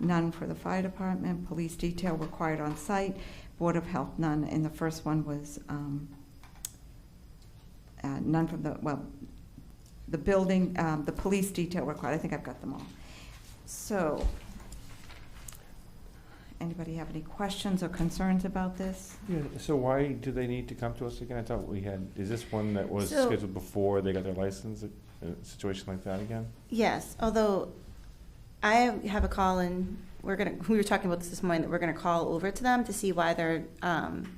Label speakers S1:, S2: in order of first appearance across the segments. S1: none for the fire department, police detail required on site, Board of Health, none, and the first one was um, uh, none from the, well, the building, um, the police detail required, I think I've got them all. So, anybody have any questions or concerns about this?
S2: Yeah, so why do they need to come to us again? I thought we had, is this one that was
S3: So-
S2: scheduled before they got their license, a a situation like that again?
S3: Yes, although I have a call and we're gonna, we were talking about this this morning, that we're gonna call over to them to see why they're, um,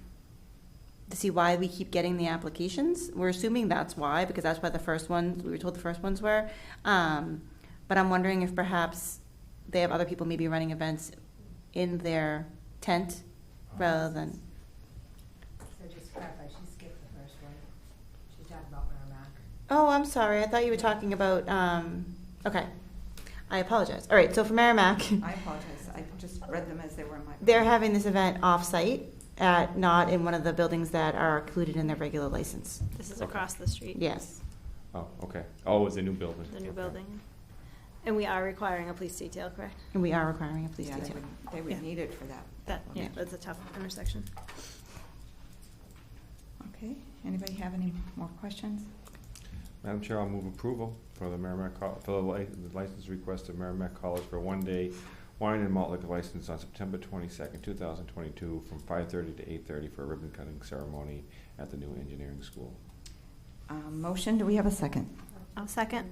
S3: to see why we keep getting the applications. We're assuming that's why, because that's why the first ones, we were told the first ones were. Um, but I'm wondering if perhaps they have other people maybe running events in their tent rather than,
S4: So just clarify, she skipped the first one. She talked about Merrimack.
S3: oh, I'm sorry, I thought you were talking about, um, okay. I apologize. All right, so for Merrimack.
S1: I apologize, I just read them as they were in my.
S3: They're having this event off-site at, not in one of the buildings that are included in their regular license.
S5: This is
S2: Okay.
S5: across the street.
S3: Yes.
S2: Oh, okay. Oh, it's a new building.
S5: The new
S2: Okay.
S5: building. And we are requiring a police detail, correct?
S3: And we are requiring a police
S1: Yeah, they
S3: detail.
S1: would- They
S5: Yeah.
S1: would need it for that.
S5: That,
S1: one.
S5: yeah, that's a tough intersection.
S1: Okay, anybody have any more questions?
S2: Madam Chair, I'll move approval for the Merrimack, Col- for the li- the license request of Merrimack College for one-day wine and malt liquor license on September twenty-second, two thousand twenty-two, from five-thirty to eight-thirty for a ribbon-cutting ceremony at the new engineering school.
S1: Um, Motion, do we have a second?
S5: I'll second.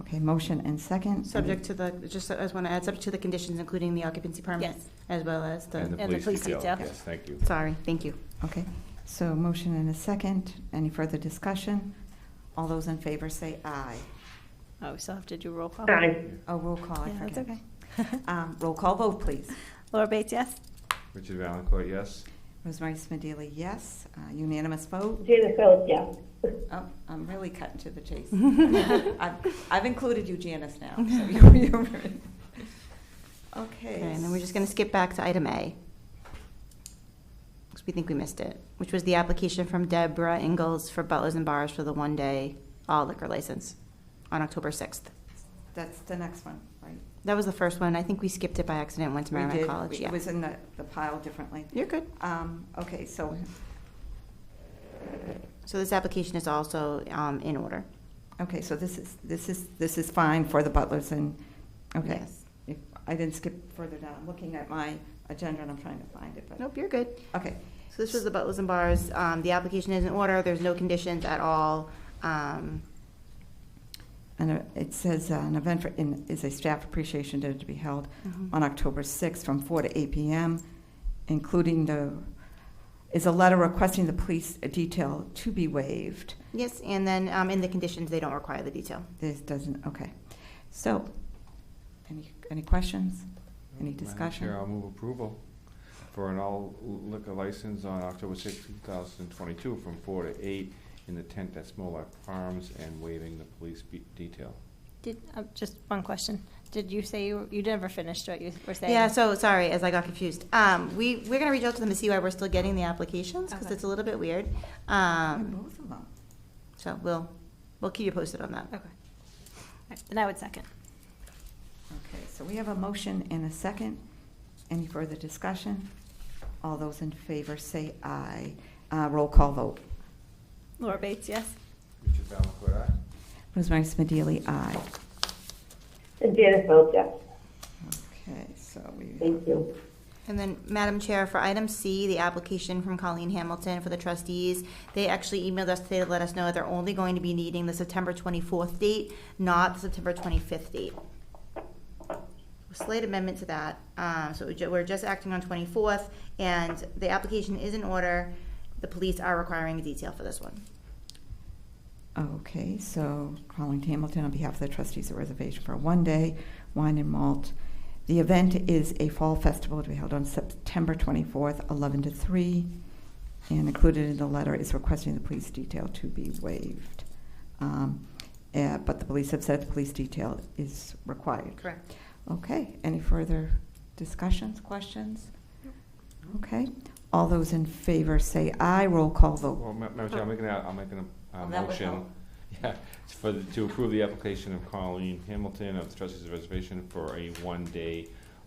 S1: Okay, motion and second.
S3: Subject to the, just, I just want to add, subject to the conditions, including the occupancy permit,
S5: Yes.
S3: as well as
S2: And
S3: the,
S2: the police detail.
S5: detail.
S2: Yes, thank you.
S3: sorry, thank you.
S1: Okay, so motion and a second. Any further discussion? All those in favor say aye.
S5: Oh, we still have to do roll call.
S1: Oh, roll call, I
S5: Yeah, that's
S1: forget.
S5: okay.
S1: Um, Roll call vote, please.
S5: Laura Bates, yes?
S2: Richard Valencourt, yes?
S1: Rosemary Smedili, yes. Uh, Unanimous vote?
S6: Gina Phillips, yes.
S1: Oh, I'm really cutting to the chase. I've- I've included you, Janice, now. so you- you're- Okay.
S3: Okay, and then we're just going to skip back to item A. Because we think we missed it, which was the application from Deborah Ingalls for Butlers and Bars for the one-day all liquor license on October 6th.
S1: That's the next one, right?
S3: That was the first one. I think we skipped it by accident, went to
S1: We
S3: Merrimack
S1: did.
S3: College, yeah.
S1: It was in the the pile differently.
S3: You're good.
S1: Um, Okay, so,
S3: So this application is also um, in order.
S1: okay, so this is, this is, this is fine for the butlers and, okay.
S3: Yes.
S1: If- I didn't skip further down. I'm looking at my agenda and I'm trying to find it, but,
S3: Nope, you're good.
S1: okay.
S3: So this was the Butlers and Bars. Um, The application is in order. There's no conditions at all. Um,
S1: And uh, it says, uh, an event for, in- is a staff appreciation dinner to be held
S3: Mm-hmm.
S1: on October 6th from 4 to 8 PM, including the, is a letter requesting the police detail to be waived.
S3: Yes, and then um, in the conditions, they don't require the detail.
S1: This doesn't, okay. So, any, any questions? Any discussion?
S2: Madam Chair, I'll move approval for an all liquor license on October sixth, two thousand twenty-two, from four to eight in the tent at Smolak Farms and waiving the police be- detail.
S5: Did, uh, just one question. Did you say you, you never finished what you were saying?
S3: Yeah, so, sorry, as I got confused. Um, We, we're going to reach out to them to see why we're still getting the applications, because
S5: Okay.
S3: it's a little bit weird.
S1: Yeah,
S3: Um,
S1: Both of them.
S3: So we'll, we'll keep you posted on that.
S5: Okay. All right, Then I would second.
S1: Okay, so we have a motion and a second. Any further discussion? All those in favor say aye. Uh, Roll call vote.
S5: Laura Bates, yes?
S2: Richard Valencourt,
S1: Rosemary Smedili, aye.
S6: And Gina Phillips, yes.
S1: Okay, so we,
S6: Thank you.
S3: And then, Madam Chair, for item C, the application from Colleen Hamilton for the trustees, they actually emailed us today to let us know they're only going to be needing the September 24th date, not the September 25th date. Slight amendment to that, uh, so we ju- we're just acting on 24th, and the application is in order. The police are requiring a detail for this one.
S1: okay, so Colleen Hamilton on behalf of the trustees of reservation for one day, wine and malt. The event is a fall festival to be held on September 24th, 11 to 3. And included in the letter is requesting the police detail to be waived. Um, eh, But the police have said the police detail is required.
S3: Correct.
S1: Okay, any further discussions, questions? Okay, all those in favor say aye, roll call vote.
S2: Well, Ma- Madam Chair, I'm making a, I'm making a,
S1: Oh,
S2: a
S1: that would
S2: motion.
S1: help.
S2: Yeah, it's for, the- to approve the application of Colleen Hamilton of the Trustees of Reservation for a one-day